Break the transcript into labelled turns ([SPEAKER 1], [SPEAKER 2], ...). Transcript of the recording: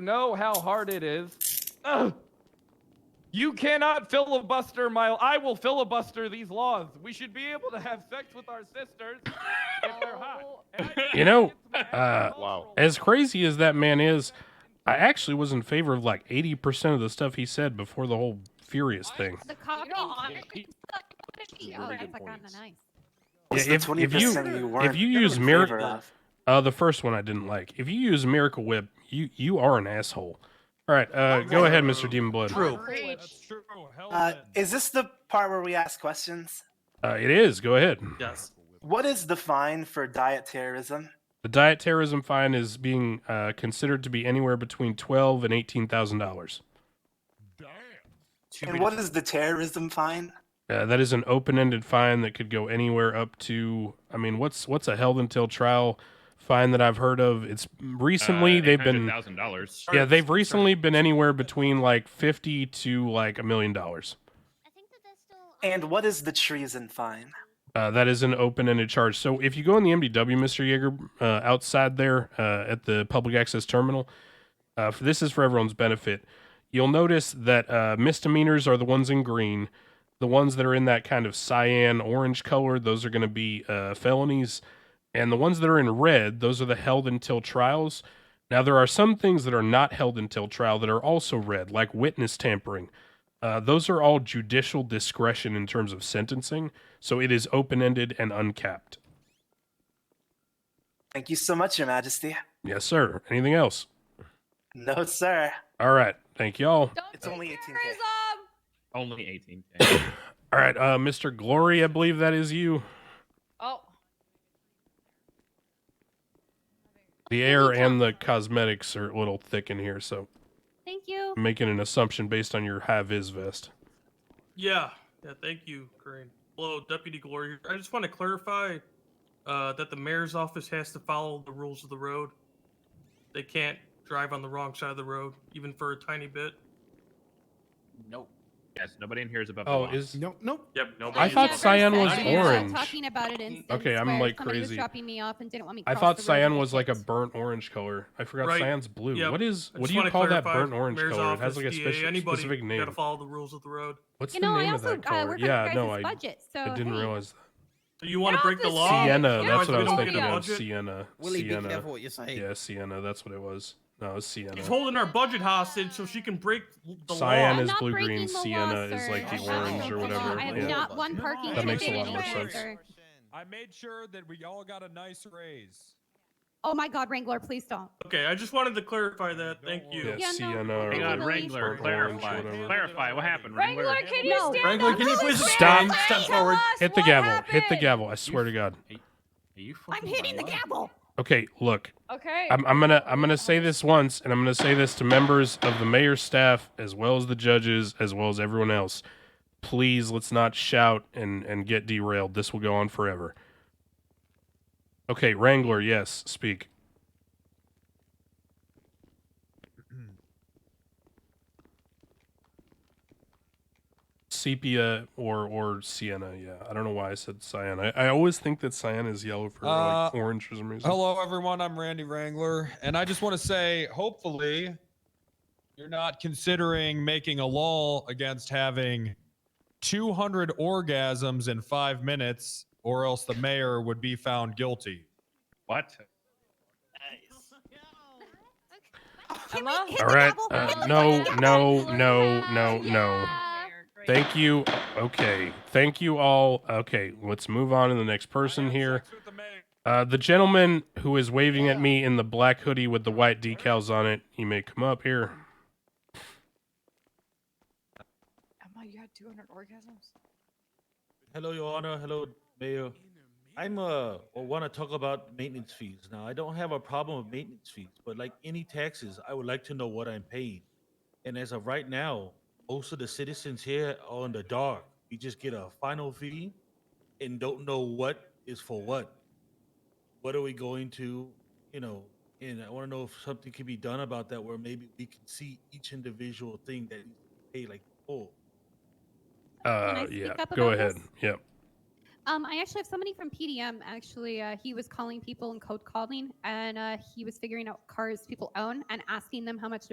[SPEAKER 1] know how hard it is. Ugh. You cannot filibuster my. I will filibuster these laws. We should be able to have sex with our sisters if they're hot. And I-
[SPEAKER 2] You know,
[SPEAKER 1] it's my
[SPEAKER 2] uh,
[SPEAKER 1] cultural-
[SPEAKER 2] As crazy as that man is, I actually was in favor of like 80% of the stuff he said before the whole Furious thing.
[SPEAKER 3] The cock
[SPEAKER 4] You're on
[SPEAKER 3] and-
[SPEAKER 4] it.
[SPEAKER 3] What if he-
[SPEAKER 5] Some
[SPEAKER 3] Oh,
[SPEAKER 5] really
[SPEAKER 3] that's
[SPEAKER 5] good
[SPEAKER 3] like on the
[SPEAKER 5] points.
[SPEAKER 3] nice.
[SPEAKER 5] What's
[SPEAKER 2] Yeah, if- if
[SPEAKER 5] the 20%
[SPEAKER 2] you-
[SPEAKER 5] you,
[SPEAKER 2] if
[SPEAKER 5] weren't
[SPEAKER 2] you
[SPEAKER 5] in
[SPEAKER 2] use
[SPEAKER 5] favor
[SPEAKER 2] miracle-
[SPEAKER 5] of?
[SPEAKER 2] Uh, the first one I didn't like. If you use Miracle Whip, you you are an asshole. All right, uh, go ahead, Mr. Demon Blood.
[SPEAKER 6] True.
[SPEAKER 3] Outrage.
[SPEAKER 6] That's true. Hell
[SPEAKER 5] Uh,
[SPEAKER 6] then.
[SPEAKER 5] is this the part where we ask questions?
[SPEAKER 2] Uh, it is. Go ahead.
[SPEAKER 6] yes.
[SPEAKER 5] What is the fine for diet terrorism?
[SPEAKER 2] The diet terrorism fine is being uh, considered to be anywhere between twelve and eighteen thousand dollars.
[SPEAKER 6] Damn.
[SPEAKER 5] And what is the terrorism fine?
[SPEAKER 2] Uh, that is an open-ended fine that could go anywhere up to. I mean, what's what's a held until trial fine that I've heard of? It's recently they've been
[SPEAKER 7] thousand dollars.
[SPEAKER 2] yeah they've recently been anywhere between like fifty to like a million dollars.
[SPEAKER 5] And what is the treason fine?
[SPEAKER 2] Uh, that is an open-ended charge. So if you go in the MDW, Mr. Yeager, uh, outside there uh, at the public access terminal, uh, for, this is for everyone's benefit. You'll notice that uh, misdemeanors are the ones in green. The ones that are in that kind of cyan orange color, those are going to be uh, felonies. And the ones that are in red, those are the held until trials. Now, there are some things that are not held until trial that are also red, like witness tampering. Uh, those are all judicial discretion in terms of sentencing. So it is open ended and uncapped.
[SPEAKER 5] Thank you so much, Your Majesty.
[SPEAKER 2] Yes, sir. Anything else?
[SPEAKER 5] No, sir.
[SPEAKER 2] All right. Thank y'all.
[SPEAKER 4] Don't
[SPEAKER 5] It's
[SPEAKER 4] do
[SPEAKER 5] only 18K.
[SPEAKER 4] terrorism!
[SPEAKER 7] Only eighteen.
[SPEAKER 2] All right. Uh, Mr. Glory, I believe that is you.
[SPEAKER 4] Oh,
[SPEAKER 2] The air and the cosmetics are a little thick in here, so
[SPEAKER 3] Thank you.
[SPEAKER 2] I'm making an assumption based on your high vis vest.
[SPEAKER 8] Yeah, yeah. Thank you, Green. Hello, Deputy Glory. I just want to clarify uh, that the mayor's office has to follow the rules of the road. They can't drive on the wrong side of the road, even for a tiny bit.
[SPEAKER 6] Nope.
[SPEAKER 7] yes, nobody in here is above.
[SPEAKER 2] Oh,
[SPEAKER 7] the law.
[SPEAKER 2] is
[SPEAKER 6] Nope. Nope.
[SPEAKER 5] Yep, no.
[SPEAKER 2] I thought
[SPEAKER 3] Never
[SPEAKER 2] cyan
[SPEAKER 3] said
[SPEAKER 2] was
[SPEAKER 3] that.
[SPEAKER 2] orange.
[SPEAKER 3] Talking about it instance
[SPEAKER 2] Okay, I'm,
[SPEAKER 3] where
[SPEAKER 2] like,
[SPEAKER 3] somebody was
[SPEAKER 2] crazy.
[SPEAKER 3] dropping me off and didn't want me.
[SPEAKER 2] I
[SPEAKER 3] cross
[SPEAKER 2] thought
[SPEAKER 3] the road and
[SPEAKER 2] cyan
[SPEAKER 3] I
[SPEAKER 2] was like a
[SPEAKER 3] kicked.
[SPEAKER 2] burnt orange color. I forgot
[SPEAKER 8] Right.
[SPEAKER 2] cyan's blue.
[SPEAKER 8] Yep.
[SPEAKER 2] What is
[SPEAKER 8] I
[SPEAKER 2] what
[SPEAKER 8] just
[SPEAKER 2] do you
[SPEAKER 8] wanna
[SPEAKER 2] call that
[SPEAKER 8] clarify,
[SPEAKER 2] burnt orange
[SPEAKER 8] mayor's
[SPEAKER 2] color? It has
[SPEAKER 8] office,
[SPEAKER 2] like a
[SPEAKER 8] DA,
[SPEAKER 2] special,
[SPEAKER 8] anybody,
[SPEAKER 2] specific
[SPEAKER 8] You gotta
[SPEAKER 2] name.
[SPEAKER 8] follow the rules of the road.
[SPEAKER 2] What's
[SPEAKER 3] You
[SPEAKER 2] the
[SPEAKER 3] know,
[SPEAKER 2] name
[SPEAKER 3] I
[SPEAKER 2] of
[SPEAKER 3] also
[SPEAKER 2] that
[SPEAKER 3] uh,
[SPEAKER 2] color?
[SPEAKER 3] work on
[SPEAKER 2] Yeah,
[SPEAKER 3] your
[SPEAKER 2] no,
[SPEAKER 3] guys'
[SPEAKER 2] I,
[SPEAKER 3] budget, so
[SPEAKER 2] I didn't
[SPEAKER 3] hey.
[SPEAKER 2] realize
[SPEAKER 8] So you
[SPEAKER 4] Get
[SPEAKER 8] want to
[SPEAKER 4] off
[SPEAKER 8] break the
[SPEAKER 4] this
[SPEAKER 8] law?
[SPEAKER 4] Oh,
[SPEAKER 2] that. Sienna,
[SPEAKER 4] yeah,
[SPEAKER 2] that's
[SPEAKER 8] so
[SPEAKER 2] what I
[SPEAKER 8] we
[SPEAKER 2] was
[SPEAKER 8] don't
[SPEAKER 2] thinking
[SPEAKER 8] get a
[SPEAKER 2] of.
[SPEAKER 8] budget?
[SPEAKER 2] Sienna.
[SPEAKER 6] Willie, be
[SPEAKER 2] Sienna.
[SPEAKER 6] careful what you say.
[SPEAKER 2] Yeah, Sienna. That's what it was. No, it's Sienna.
[SPEAKER 8] She's holding our budget hostage so she can break the
[SPEAKER 2] Cyan
[SPEAKER 8] law.
[SPEAKER 2] is
[SPEAKER 3] not
[SPEAKER 2] blue
[SPEAKER 3] breaking
[SPEAKER 2] green,
[SPEAKER 3] the law,
[SPEAKER 2] sienna is like
[SPEAKER 3] sir.
[SPEAKER 2] the
[SPEAKER 3] I'm not
[SPEAKER 2] orange or
[SPEAKER 3] breaking the law.
[SPEAKER 2] whatever.
[SPEAKER 3] I am
[SPEAKER 2] yeah.
[SPEAKER 3] not one parking.
[SPEAKER 2] That makes a
[SPEAKER 3] ticket
[SPEAKER 2] lot more
[SPEAKER 3] anywhere,
[SPEAKER 2] sense.
[SPEAKER 3] sir.
[SPEAKER 6] I made sure that we all got a nice raise.
[SPEAKER 3] Oh my God, Wrangler, please don't.
[SPEAKER 8] Okay, I just wanted to clarify that.
[SPEAKER 6] Don't
[SPEAKER 8] Thank
[SPEAKER 6] worry.
[SPEAKER 8] you.
[SPEAKER 2] Yeah,
[SPEAKER 3] Yeah, no,
[SPEAKER 2] sienna or
[SPEAKER 7] Hang on,
[SPEAKER 2] whatever,
[SPEAKER 7] uh, Wrangler,
[SPEAKER 2] burnt orange,
[SPEAKER 7] clarify,
[SPEAKER 2] whatever.
[SPEAKER 7] clarify what happened, Wrangler.
[SPEAKER 4] Wrangler, can you
[SPEAKER 3] No.
[SPEAKER 4] stand
[SPEAKER 6] Wrangler,
[SPEAKER 4] up?
[SPEAKER 6] can you
[SPEAKER 4] Who
[SPEAKER 6] please
[SPEAKER 4] is
[SPEAKER 2] stand-
[SPEAKER 4] Barry?
[SPEAKER 6] step
[SPEAKER 4] Tell
[SPEAKER 6] forward.
[SPEAKER 4] us
[SPEAKER 2] Hit the
[SPEAKER 4] what
[SPEAKER 2] gavel. Hit the
[SPEAKER 4] happened.
[SPEAKER 2] gavel. I swear to God.
[SPEAKER 7] Are you
[SPEAKER 3] I'm
[SPEAKER 7] fucking
[SPEAKER 3] hitting the
[SPEAKER 7] lying?
[SPEAKER 3] gavel.
[SPEAKER 2] Okay, look.
[SPEAKER 4] Okay.
[SPEAKER 2] I'm, I'm gonna I'm gonna say this once, and I'm gonna say this to members of the mayor's staff, as well as the judges, as well as everyone else. Please, let's not shout and and get derailed. This will go on forever. Okay, Wrangler. Yes, speak. Sepia or or sienna, yeah. I don't know why I said cyan. I, I always think that cyan is yellow for like
[SPEAKER 6] Uh,
[SPEAKER 2] orange for some reason.
[SPEAKER 6] Hello, everyone. I'm Randy Wrangler, and I just want to say, hopefully, you're not considering making a law against having 200 orgasms in five minutes, or else the mayor would be found guilty.
[SPEAKER 7] What?
[SPEAKER 3] Can we
[SPEAKER 4] Emma?
[SPEAKER 3] hit
[SPEAKER 2] All
[SPEAKER 3] the
[SPEAKER 2] right.
[SPEAKER 3] gavel?
[SPEAKER 2] Uh,
[SPEAKER 3] Hit the
[SPEAKER 2] no,
[SPEAKER 3] gavel.
[SPEAKER 2] no, no, no, no.
[SPEAKER 3] Yeah.
[SPEAKER 2] Thank you. Okay. Thank you all. Okay. Let's move on to the next person here. Uh, the gentleman who is waving at me in the black hoodie with the white decals on it, he may come up here.
[SPEAKER 4] Emma, you had 200 orgasms?
[SPEAKER 9] Hello, Your Honor. Hello, Mayor. I'm uh want to talk about maintenance fees. Now, I don't have a problem with maintenance fees, but like any taxes, I would like to know what I'm paying. And as of right now, most of the citizens here are in the dark. We just get a final fee and don't know what is for what. What are we going to, you know? And I want to know if something can be done about that, where maybe we can see each individual thing that you pay like full.
[SPEAKER 2] Uh,
[SPEAKER 3] I speak
[SPEAKER 2] yeah.
[SPEAKER 3] up
[SPEAKER 2] Go
[SPEAKER 3] about
[SPEAKER 2] ahead.
[SPEAKER 3] this?
[SPEAKER 2] Yep.
[SPEAKER 3] Um, I actually have somebody from PDM. Actually, uh, he was calling people and code calling, and uh, he was figuring out cars people own and asking them how much